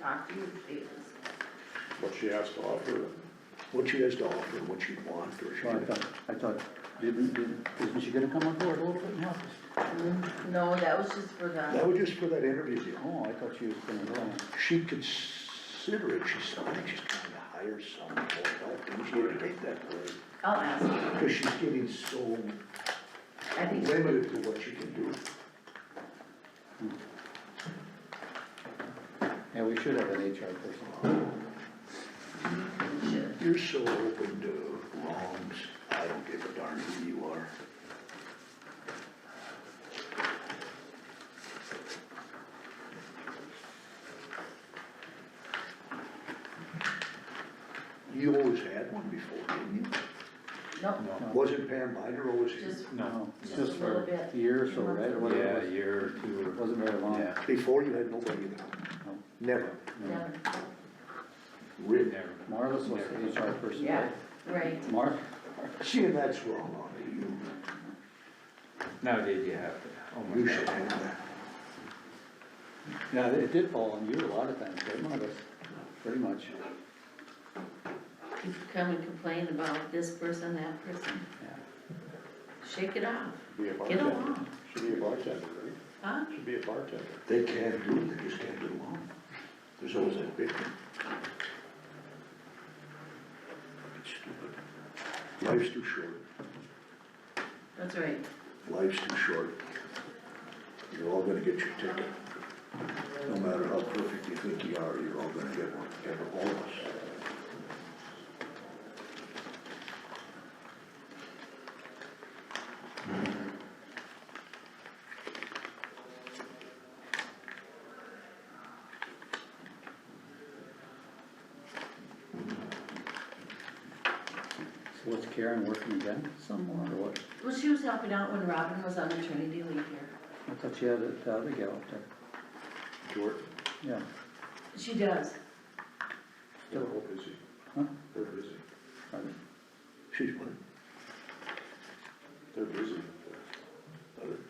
talk to you, please. what she has to offer. what she has to offer, what she wants, or she. Well, I thought, I thought, didn't, didn't, isn't she gonna come on board a little bit and help us? Mm, No, that was just for That the, was just for that interview deal. Oh, I thought she was gonna go. She'd consider it, she's, I think she's trying to hire someone to help, and she didn't take that word, I'll ask her. because she's getting so I think, limited to what she can do. Yeah, we should have an HR person. we should. You're so open to wrongs, I don't give a darn who you are. You always had one before, didn't No, you? Wasn't Pam Minor always here? just, No, Just just a little for bit. a year or so, right? or whatever Yeah, it a was. year or two. or- Wasn't very long. Yeah, Before you had nobody at all? No. Never, No. never, really. never. Marlis was the HR person, yeah, right? right. Mark, See, and that's wrong on you, Nowadays you have to, oh you my should god. have that. yeah, it did fall on you a lot of times, right, Marlis? Pretty much, You come and complain about this person, that person, yeah. shake it off, Be a get bartender. along, Should be a bartender, right? huh? Should be a bartender. They can't do it, they just can't get along. There's always that victim. It's stupid. Life's too short, That's right. life's too short. You're all gonna get your ticket. No matter how perfect you think you are, you're all gonna get one, ever, all of us. So what's Karen working again somewhere or what? Well, she was helping out when Robin was on maternity leave here. I thought she had it, the other gal up there, Jordan, yeah. She does, they're all busy. Huh? They're busy. probably. She's one. They're busy. There-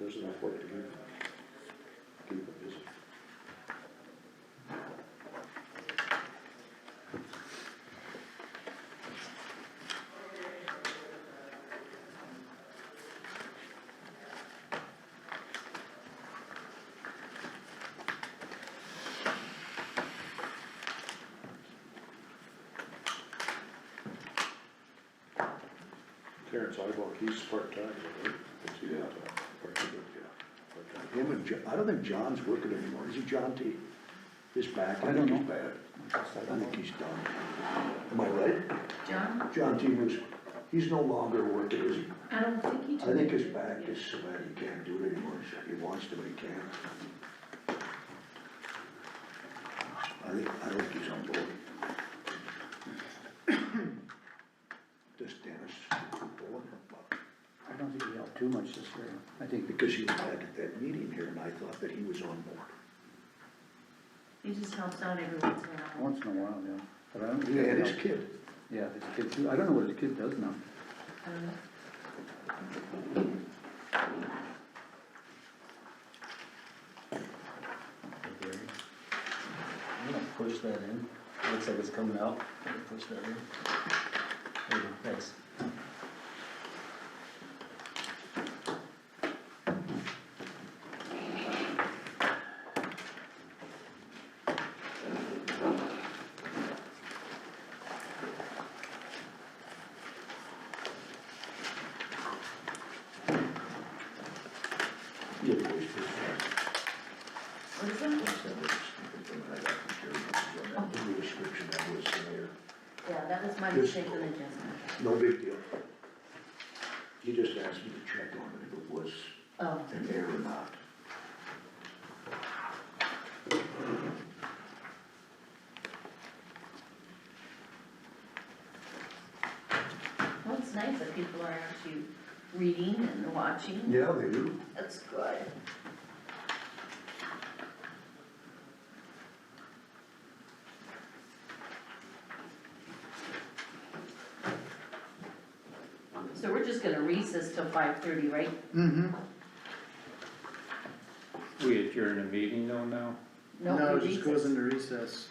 There's enough work to do. Keep them busy. Terrence Ibach, he's part-time, right? Is he Yeah. Part-time, yeah. Part-time. Him and Jo- I don't think John's working anymore, is it John T? His back, I I don't think he's know. bad. I I don't know. think he's done. Am I right? John, John T was, he's no longer working, is he? I don't think he I told think his you. back is so bad he can't do it anymore, so he wants to, but he can't. I think, I don't think he's on board. This Dennis, I don't think he helped too much this year, I think, because he was back at that meeting here and I thought that he was on board. He just helps out every once in a while. once in a while, yeah. But I don't. think he And his helped. kid, Yeah, his kid too, I don't know what his kid does now. I don't know. I'm gonna push that in, looks like it's coming out, I'm gonna push that in. There you go, Thanks. he had voice for that. What is that? That's that was stupid thing that I got from Jerry. That was the description that was there. Yeah, that was my This- mistake on the adjustment. No big deal. He just asked me to check on it, if it was Oh, an error or not. well, it's nice that people are actually reading and watching. Yeah, they do. That's good. So we're just gonna recess till five thirty, right? Mm-hmm. We adjourn the meeting though now? No, we recess. into recess.